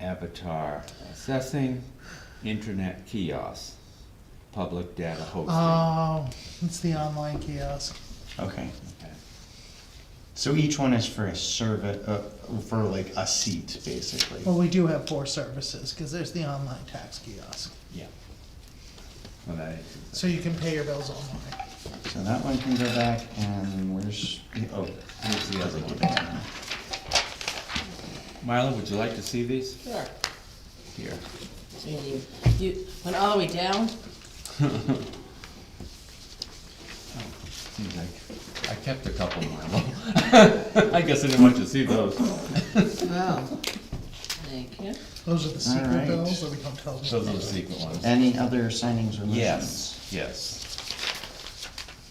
Avatar, assessing internet kiosks, public data hosting. Oh, it's the online kiosk. Okay, Okay. so each one is for a servant, uh, for like a seat, basically. Well, we do have four services, cause there's the online tax kiosk, Yeah. Well, that is, so you can pay your bills online. So that one can go back, and where's, oh, here's the other one. yeah. Marla, would you like to see these? Sure. Here. So you, you went all the way down? Seems like, I kept a couple, Marla. I guess I didn't want you to see those. Wow. Thank you. Those are the secret Alright. bills, so we don't tell them. Those are the secret ones. Any other signings or motions? Yes, yes.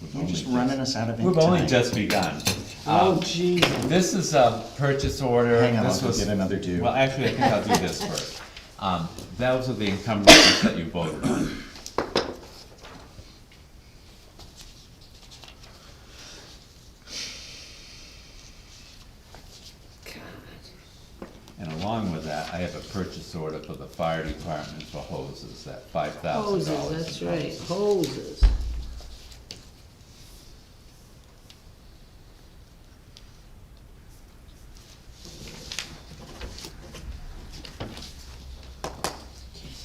We've You're only just running us out of ink We've only tonight. just begun. Oh, Um, geez. This is a purchase order. Hang on, This I'll go was- get another do. Well, actually, I think I'll do this first. Um, those are the encumbrances that you voted on. And along with that, I have a purchase order for the fire department for hoses, that five thousand dollars. Hoses, that's right, hoses. Those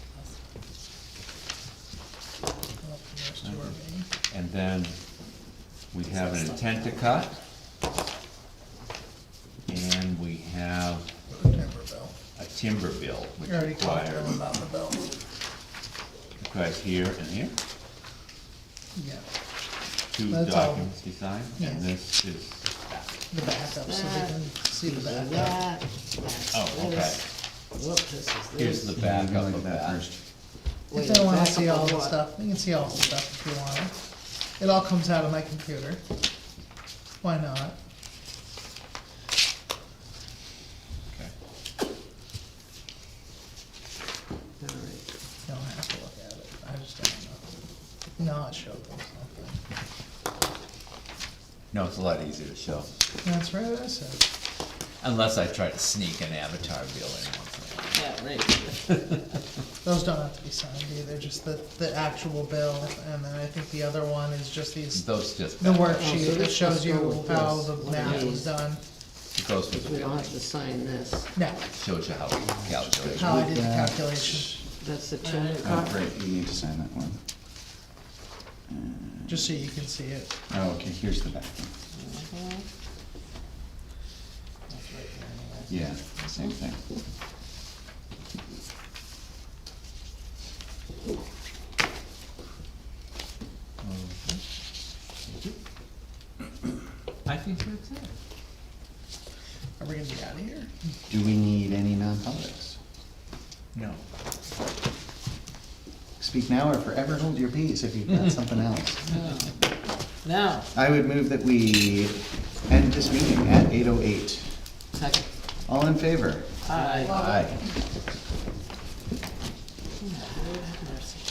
Oh, two are me. And then we have an intent to cut. And we have The timber bill. a timber bill, which You already talked to them requires, about the bill. requires here and here, Yeah, two That's all. documents to sign. And this is, the backup, so they can see the That, backup. that's this. oh, okay, Whoop, this is here's this. the Yeah, you backup look of at that that. first. Wait, If they wanna back see up all on the what? stuff, they can see all the stuff if you want it. It all comes out of my computer. Why not? Okay. All right. You don't have to look at it, I just don't know. No, it showed them something. No, it's a lot easier to show, That's right, I said. unless I try to sneak an avatar bill in once in a while. Yeah, right. Those don't have to be signed either, just the, the actual bill, and then I think the other one is just these, Those just, the it Oh, so worksheet that this shows must you go with how this, the one of math was these. done. goes with the We don't bill, have to sign this. No, shows you how we calculate. how I did the Look at- calculation, That's the check. Oh, great, you need to sign that one. just so you can see it. Oh, okay, here's the back one. Mm-hmm. Yeah, same thing. I think that's it. Are we gonna be out of here? Do we need any non-publics? No. Speak now or forever hold your peace if you've got something else. Now, I would move that we end this meeting at eight oh eight. second. All in favor? Aye. Aye. Mercy.